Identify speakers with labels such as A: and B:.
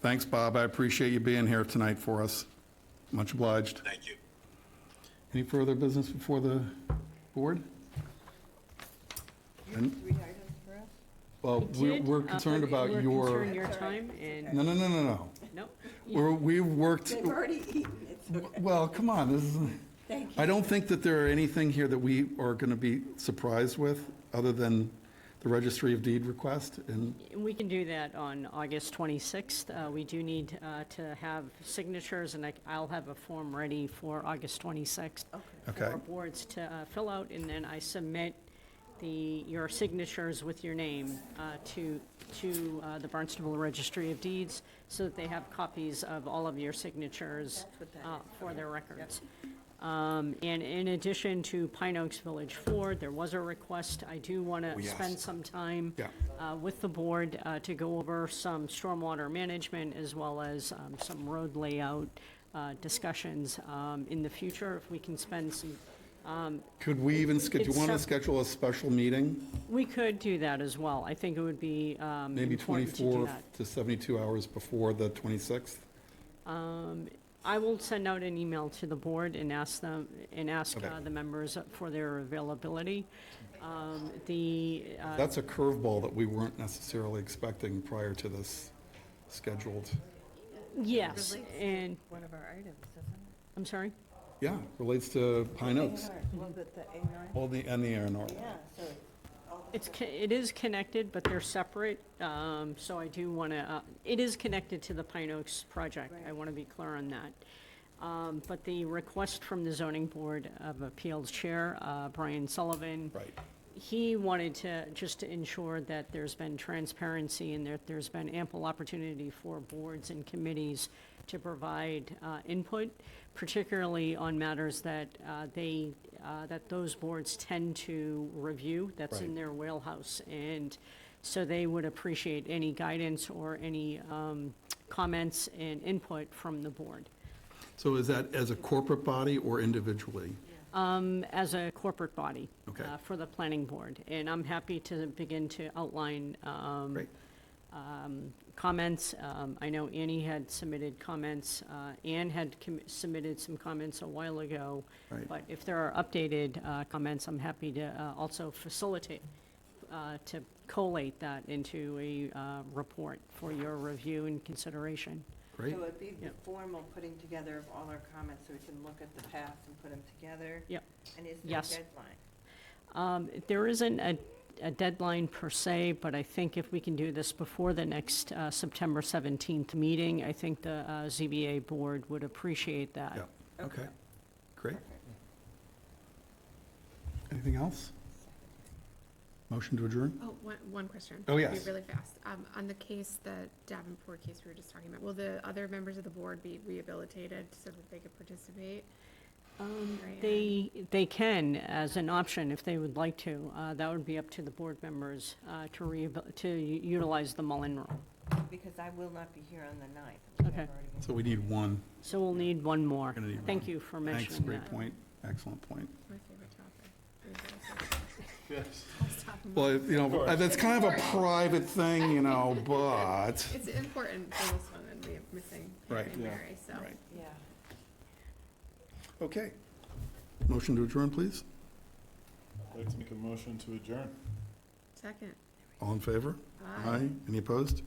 A: Thanks, Bob. I appreciate you being here tonight for us. Much obliged.
B: Thank you.
A: Any further business before the board?
C: Rehired him for us?
A: Well, we're-
D: did,
A: we're
D: uh,
A: concerned about
D: We're
A: your,
D: concerned your
C: That's all right.
D: time and,
A: no, no, no, no, no.
D: nope.
A: We're- We've worked,
C: They've already eaten, it's okay,
A: well, come on, this is,
C: thank you.
A: I don't think that there are anything here that we are going to be surprised with, other than the registry of deed request, and
D: We can do that on August 26th. Uh, We do need uh, to have signatures, and I- I'll have a form ready for August 26th.
A: Okay.
D: For boards to uh, fill out, and then I submit the, your signatures with your name uh, to, to uh, the Barnstable Registry of Deeds, so that they have copies of all of your signatures uh, for their records. Um, And in addition to Pine Oaks Village Ford, there was a request, I do want to spend some time
A: Yeah.
D: uh, with the board uh, to go over some stormwater management as well as um, some road layout uh, discussions um, in the future, if we can spend some,
A: could we even, sch- do you
D: It's
A: want to
D: some-
A: schedule a special meeting?
D: we could do that as well. I think it would be um,
A: Maybe
D: important to do
A: 24
D: that.
A: to 72 hours before the 26th?
D: I will send out an email to the board and ask them, and ask
A: Okay.
D: uh, the members for their availability. Um, The, uh,
A: That's a curveball that we weren't necessarily expecting prior to this scheduled.
D: yes, and,
C: One of our items, isn't
D: I'm sorry?
A: Yeah, relates to Pine Oaks,
C: Well, the, the A nine,
A: all the, and the A and R.
C: yeah, so it's all the.
D: It's, co- it is connected, but they're separate, um, so I do want to, it is connected to the Pine Oaks project. I want to be clear on that. Um, But the request from the zoning board of appeals chair, uh, Brian Sullivan.
A: Right.
D: He wanted to, just to ensure that there's been transparency and that there's been ample opportunity for boards and committees to provide uh, input, particularly on matters that uh, they, uh, that those boards tend to review. That's in
A: Right.
D: their wheelhouse. And so they would appreciate any guidance or any um, comments and input from the board.
A: So is that as a corporate body or individually?
D: um, as a corporate body.
A: Okay.
D: uh, For the planning board. And I'm happy to begin to outline um,
A: Great.
D: comments. Um, I know Annie had submitted comments. uh, Ann had com- submitted some comments a while ago.
A: Right.
D: But if there are updated uh, comments, I'm happy to uh, also facilitate, uh, to collate that into a uh, report for your review and consideration.
A: Great,
C: So it'd be the
D: Yep.
C: formal putting together of all our comments, so we can look at the past and put them together?
D: Yep.
C: And is there a
D: Yes.
C: deadline?
D: Um, There isn't a, a deadline per se, but I think if we can do this before the next uh, September 17th meeting, I think the uh, ZBA board would appreciate that.
A: yeah, okay, great. Anything else? Motion to adjourn?
E: Oh, one, one question.
A: Oh,
E: Be
A: yes.
E: Really fast. Um, on the case, the Davenport case we were just talking about, will the other members of the board be rehabilitated so that they could participate? Right,
D: They, they can, as an option, if they would like to. Uh, That would be up to the board members uh, to rehabil, to utilize the Mullen Rule.
C: Because I will not be here on the ninth.
D: Okay.
A: So we need one.
D: So we'll need one more.
A: Gonna need
D: Thank
A: one.
D: you for
A: Thanks,
D: mentioning
A: great
D: that.
A: point, excellent point.
E: My favorite topic. rehabilitation. I'll stop.
A: Well, you know, that's kind of a private thing, you know, but,
E: It's important for this one and we are missing
A: Right,
E: Hail
A: yeah,
E: Mary, so.
A: right.
C: Yeah.
A: okay. Motion to adjourn, please?
F: I'd like to make a motion to adjourn.
E: Second.
A: All in favor?
E: Aye.
A: Any opposed?